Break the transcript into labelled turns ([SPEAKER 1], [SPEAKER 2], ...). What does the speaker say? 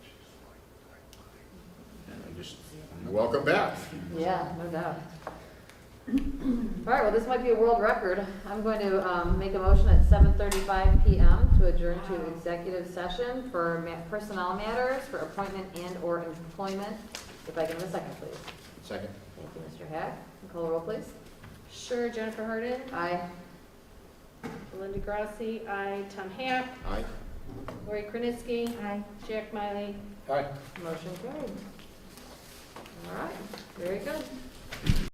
[SPEAKER 1] Just- Welcome back.
[SPEAKER 2] Yeah, no doubt. All right, well, this might be a world record. I'm going to um, make a motion at 7:35 PM to adjourn to executive session for ma- personnel matters, for appointment and/or employment. If I can have a second, please.
[SPEAKER 1] Second.
[SPEAKER 2] Thank you, Mr. Hack. Can you Call the roll, please.
[SPEAKER 3] Sure, Jennifer Harden,
[SPEAKER 2] Aye.
[SPEAKER 3] Linda Grassi, I, Tom Hack,
[SPEAKER 1] Aye.
[SPEAKER 3] Lori Krenisky,
[SPEAKER 2] Aye.
[SPEAKER 3] Jack Miley.
[SPEAKER 1] Aye.
[SPEAKER 2] Motion carried. All right, very good.